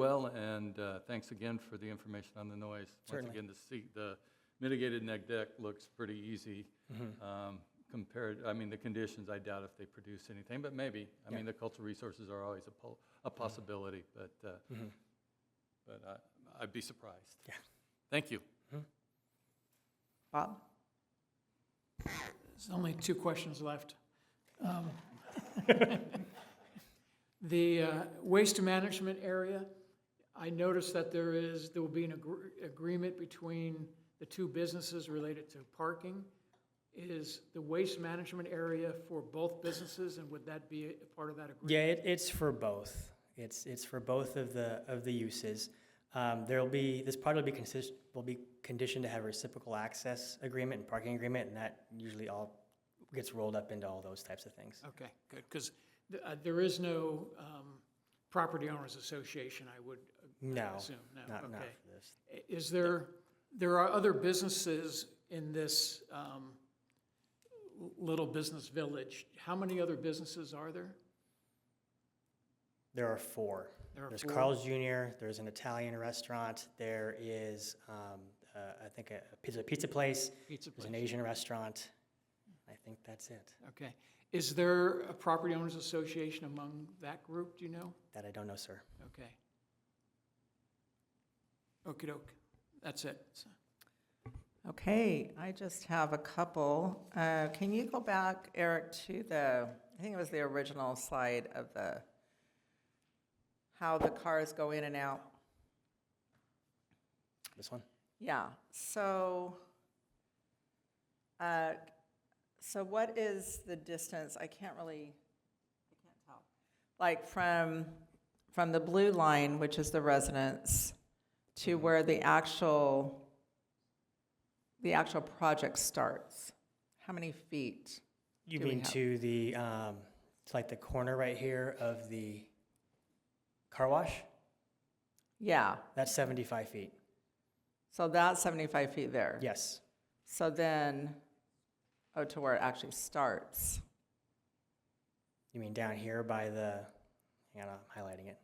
well, and uh, thanks again for the information on the noise. Once Certainly. again, the see, the mitigated neg deck looks pretty easy Mm-hmm. um, compared, I mean, the conditions, I doubt if they produce anything, but maybe. I Yeah. mean, the cultural resources are always a po- a possibility, but, uh, Mm-hmm. but I- I'd be surprised. Yeah. Thank you. Bob? There's only two questions left. Um, The uh, waste management area, I noticed that there is, there will be an agr- agreement between the two businesses related to parking. Is the waste management area for both businesses, and would that be a part of that agreement? Yeah, it, it's for both. It's, it's for both of the, of the uses. Um, there'll be, this part will be consist, will be conditioned to have reciprocal access agreement and parking agreement, and that usually all gets rolled up into all those types of things. Okay, good, because there is no um, property owners association, I would uh, No, assume, no, okay. not, not for this. Is there, there are other businesses in this um, l- little business village. How many other businesses are there? There are four. There are There's four. Carl's Jr., there's an Italian restaurant, there is, um, uh, I think, a pizza, pizza place, Pizza there's an place? Asian restaurant. I think that's it. Okay. Is there a property owners association among that group, do you know? That I don't know, sir. Okay. okey doke. That's it. Okay, I just have a couple. Uh, Can you go back, Eric, to the, I think it was the original slide of the, how the cars go in and out? This one? Yeah, so, uh, so what is the distance? I can't really, I can't tell. Like from, from the blue line, which is the residence, to where the actual, the actual project starts? How many feet? You do we mean have? to the, um, it's like the corner right here of the car wash? Yeah, That's 75 feet. so that's 75 feet there. Yes. So then, oh, to where it actually starts. You mean down here by the, hang on, I'm highlighting it.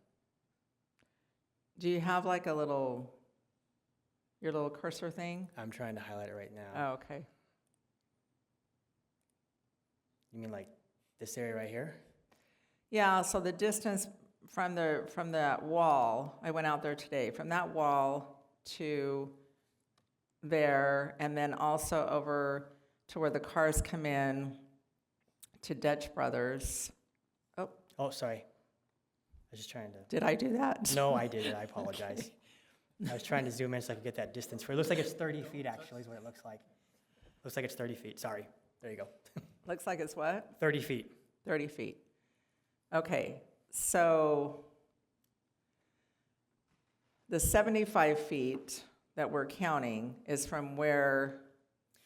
Do you have like a little, your little cursor thing? I'm trying to highlight it right now. Oh, okay. You mean like this area right here? Yeah, so the distance from the, from that wall, I went out there today, from that wall to there, and then also over to where the cars come in to Dutch Brothers. Oh, sorry. I was just trying to. Did I do that? No, I did it. I apologize. I was trying to zoom in so I could get that distance. For it looks like it's 30 feet actually is what it looks like. Looks like it's 30 feet. Sorry. There you go. Looks like it's what? 30 feet. 30 feet. Okay, so the 75 feet that we're counting is from where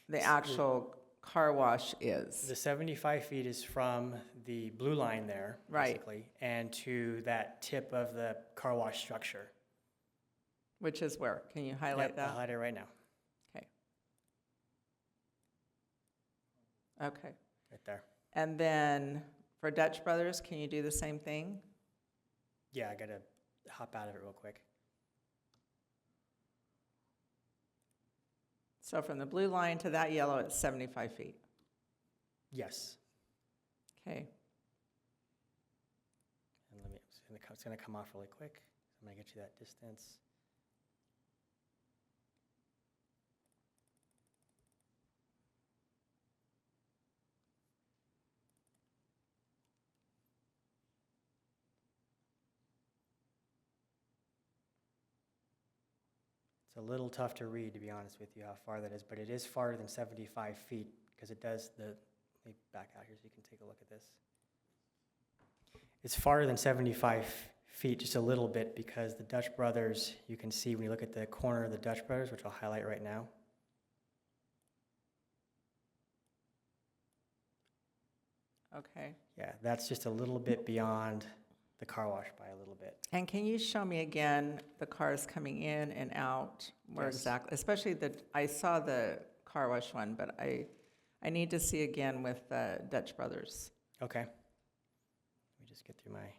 the actual car wash is. The 75 feet is from the blue line there, Right. basically, and to that tip of the car wash structure. Which is where? Can you Yep, highlight I'll that? highlight it right now, Okay. Okay. right there. And then for Dutch Brothers, can you do the same thing? Yeah, I gotta hop out of it real quick. So from the blue line to that yellow, it's 75 feet. Yes, Okay. and let me. It's gonna, co- it's gonna come off really quick. I'm gonna get you that distance. It's a little tough to read, to be honest with you, how far that is, but it is farther than 75 feet because it does the. Let me back out here so you can take a look at this. It's farther than 75 feet, just a little bit, because the Dutch Brothers, you can see when you look at the corner of the Dutch Brothers, which I'll highlight right now. Okay. Yeah, that's just a little bit beyond the car wash by a little bit. And can you show me again the cars coming in and out, where Yes. exactly, especially the, I saw the car wash one, but I, I need to see again with uh, Dutch Brothers. Okay. Let me just get through my